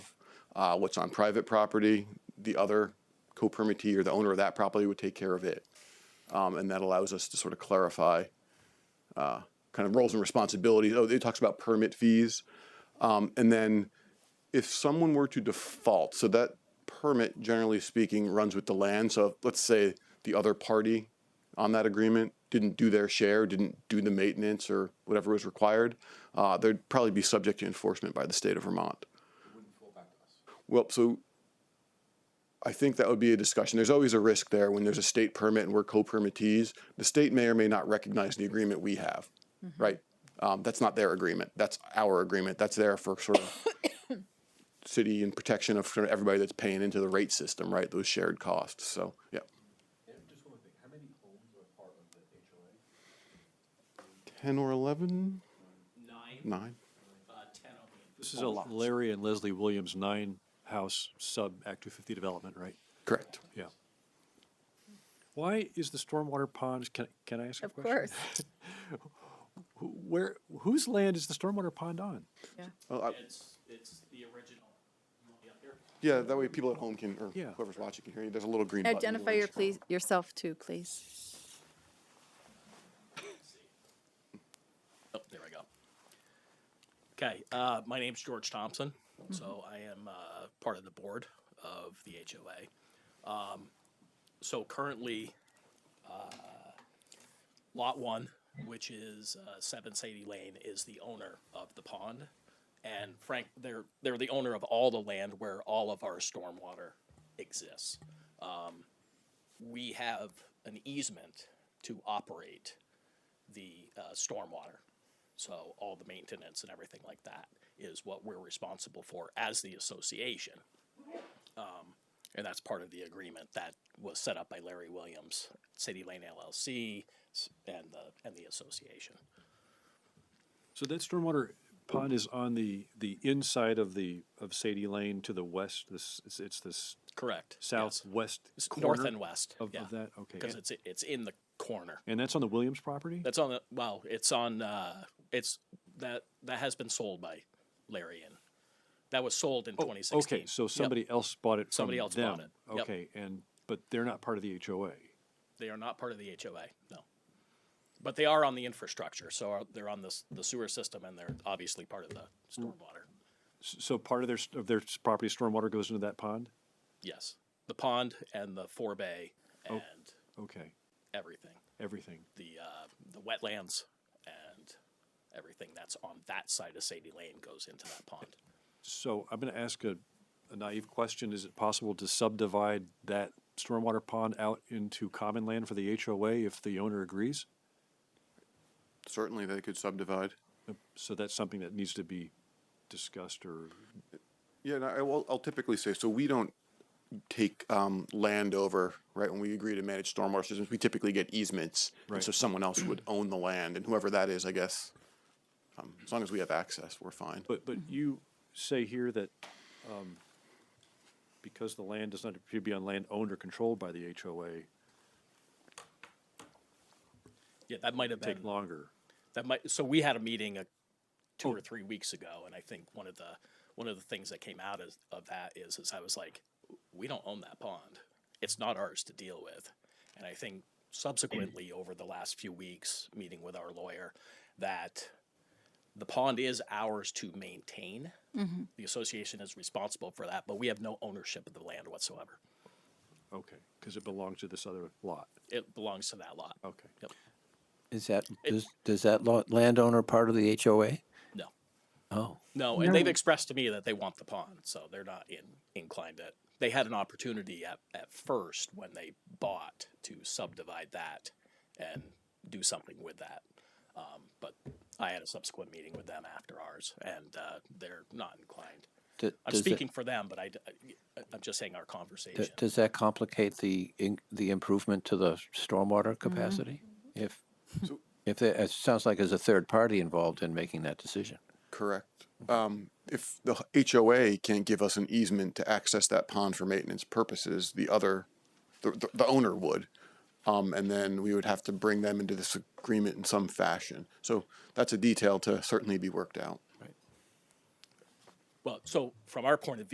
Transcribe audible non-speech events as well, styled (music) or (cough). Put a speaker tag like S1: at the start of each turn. S1: Uh, What's on private property, the other co-permittee or the owner of that property would take care of it. Um, And that allows us to sort of clarify uh, kind of roles and responsibilities. Oh, it talks about permit fees. Um, And then if someone were to default, so that permit, generally speaking, runs with the land. So if, let's say the other party on that agreement didn't do their share, didn't do the maintenance or whatever was required, uh, they'd probably be subject to enforcement by the state of Vermont. Well, so I think that would be a discussion. There's always a risk there when there's a state permit and we're co-permittees. The state may or may not recognize the agreement we have,
S2: Mm-hmm.
S1: right? Um, that's not their agreement. That's our agreement. That's there for sort of
S2: (coughs)
S1: city and protection of sort of everybody that's paying into the rate system, right? Those shared costs. So, yeah.
S3: Just one more thing, how many homes are part of the HOA?
S1: 10 or 11?
S4: nine,
S1: Nine?
S4: uh, ten of them.
S5: This is a Larry and Leslie Williams nine-house sub Act 250 development, right?
S1: Correct.
S5: Yeah. Why is the stormwater ponds, can, can I ask a
S2: Of
S5: question?
S2: course.
S5: Who- Where, whose land is the stormwater pond on?
S2: Yeah.
S1: Oh, I-
S4: It's, it's the original. You want me up here?
S1: yeah, that way people at home can, or
S5: Yeah.
S1: whoever's watching can hear you. There's a little green button.
S2: Identify your please, yourself too, please.
S4: Oh, there we go. Okay, uh, my name's George Thompson. So I am uh, part of the board of the HOA. Um, so currently, uh, Lot 1, which is uh, 7 Sadie Lane, is the owner of the pond. And Frank, they're, they're the owner of all the land where all of our stormwater exists. Um, we have an easement to operate the uh, stormwater. So all the maintenance and everything like that is what we're responsible for as the association. Um, And that's part of the agreement that was set up by Larry Williams, City Lane LLC, s- and the, and the association.
S5: So that stormwater pond is on the, the inside of the, of Sadie Lane to the west, this, it's- it's this
S4: Correct. yes.
S5: southwest
S4: S- North
S5: corner
S4: and west.
S5: of, of that? Okay.
S4: Because
S5: And-
S4: it's, it's in the corner.
S5: And that's on the Williams property?
S4: That's on the, well, it's on, uh, it's, that, that has been sold by Larry and, that was sold in twenty sixteen.
S5: Oh, Okay, so somebody else bought it from
S4: Somebody else bought
S5: them.
S4: it, yep.
S5: Okay, and, but they're not part of the HOA.
S4: They are not part of the HOA, no. But they are on the infrastructure, so are- they're on this, the sewer system and they're obviously part of the stormwater.
S5: S- So part of their, s- of their s- property stormwater goes into that pond?
S4: Yes, the pond and the forebay and
S5: Okay,
S4: everything,
S5: everything.
S4: the, uh, the wetlands and everything that's on that side of Sadie Lane goes into that pond.
S5: So I'm going to ask a a naive question. Is it possible to subdivide that stormwater pond out into common land for the HOA if the owner agrees?
S1: Certainly they could subdivide.
S5: So that's something that needs to be discussed or,
S1: Yeah, and I, I will, I'll typically say, so we don't take um, land over, right? When we agree to manage stormwater systems, we typically get easements. And
S5: Right.
S1: so someone else would own the land, and whoever that is, I guess, um, as long as we have access, we're fine.
S5: but, but
S4: Mm-hmm.
S5: you say here that um, because the land does not appear to be on land owned or controlled by the HOA,
S4: Yeah, that might have been.
S5: take longer.
S4: That might, so we had a meeting uh two or three weeks ago, and I think one of the, one of the things that came out of, of that is, is I was like, we don't own that pond. It's not ours to deal with. And I think subsequently, over the last few weeks, meeting with our lawyer, that the pond is ours to maintain. The association is responsible for that, but we have no ownership of the land whatsoever.
S5: Okay, because it belongs to this other lot.
S4: It belongs to that lot.
S5: Okay.
S4: Yep.
S6: Is that, does, does that lo- landowner part of the HOA?
S4: No.
S6: Oh.
S4: No, and they've expressed to me that they want the pond, so they're not in, inclined to. They had an opportunity at, at first when they bought to subdivide that and do something with that. Um, but I had a subsequent meeting with them after ours, and uh, they're not inclined.
S6: d-
S4: I'm
S6: does it-
S4: speaking for them, but I, am just saying our conversation.
S6: d- Does that complicate the, in- the improvement to the stormwater capacity? If, if, there- it sounds like there's a third party involved in making that decision.
S1: Correct. Um, if the h- HOA can't give us an easement to access that pond for maintenance purposes, the other, the, the, the owner would. Um, and then we would have to bring them into this agreement in some fashion. So that's a detail to certainly be worked out.
S4: well, so from our point of view.